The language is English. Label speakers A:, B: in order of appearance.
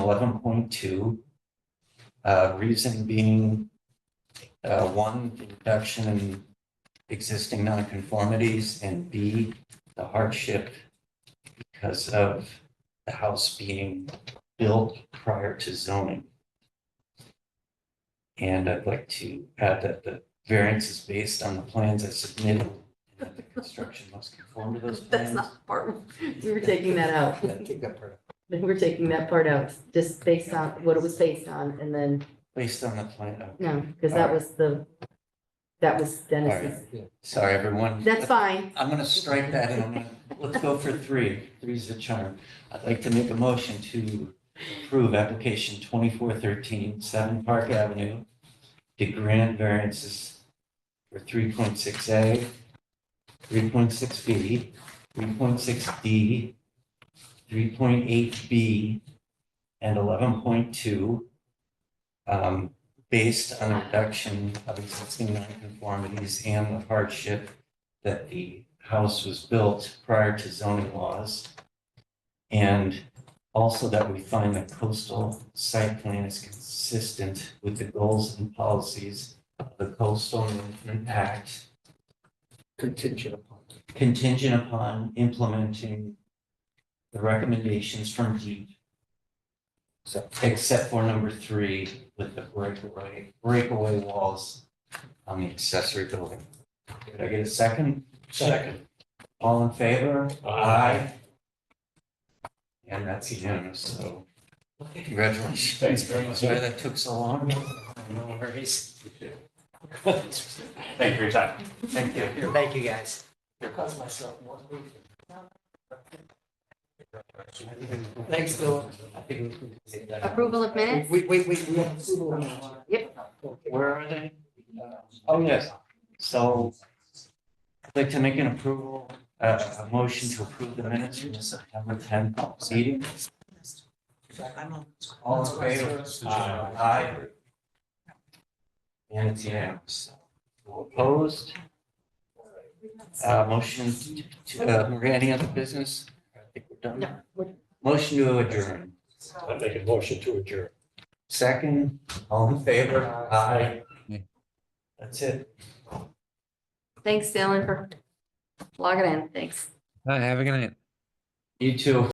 A: eleven point two. Uh, reason being, uh, one, the reduction in existing nonconformities, and B, the hardship because of the house being built prior to zoning. And I'd like to add that the variance is based on the plans I submitted, and that the construction must conform to those
B: That's
A: plans.
B: not the part, we were taking that out.
A: Yeah, take that part out.
B: We were taking that part out, just based on what it was based on and then,
A: Based on the plan, oh,
B: no, because that was the, that was Dennis's.
A: sorry, everyone.
B: That's fine.
A: I'm gonna strike that and I'm gonna, let's go for three. Three's the charm. I'd like to make a motion to approve application 2413, 7 Park Avenue to grant variances for three point six A, three point six B, three point six D, three point eight B, and eleven point two, um, based on a reduction of existing nonconformities and the hardship that the house was built prior to zoning laws. And also that we find that coastal site plan is consistent with the goals and policies of the coastal management act
C: contingent upon.
A: contingent upon implementing the recommendations from deep. So except for number three with the breakaway, breakaway walls on the accessory building. Did I get a second? Second. All in favor?
C: Aye.
A: And that's unanimous, so congratulations.
C: Thanks very much.
A: Sorry that took so long. No worries. Thank you for your time. Thank you.
C: Thank you, guys. Cost myself one week. Thanks, Bill.
B: Approval of minutes?
C: Wait, wait, wait, we have approval now.
B: Yep.
A: Where are they? Oh, yes. So I'd like to make an approval, uh, a motion to approve the minutes from the September tenth meeting. All in favor? Aye. And it's unanimous. All Opposed? Uh, motion to, uh, Maria, any other business? I think we're done.
B: No, we're-
A: Motion to adjourn.
D: I make a motion to adjourn.
A: Second, all in favor? Aye. That's it.
B: Thanks, Dylan, for logging in. Thanks.
E: Have a good night.
A: You too.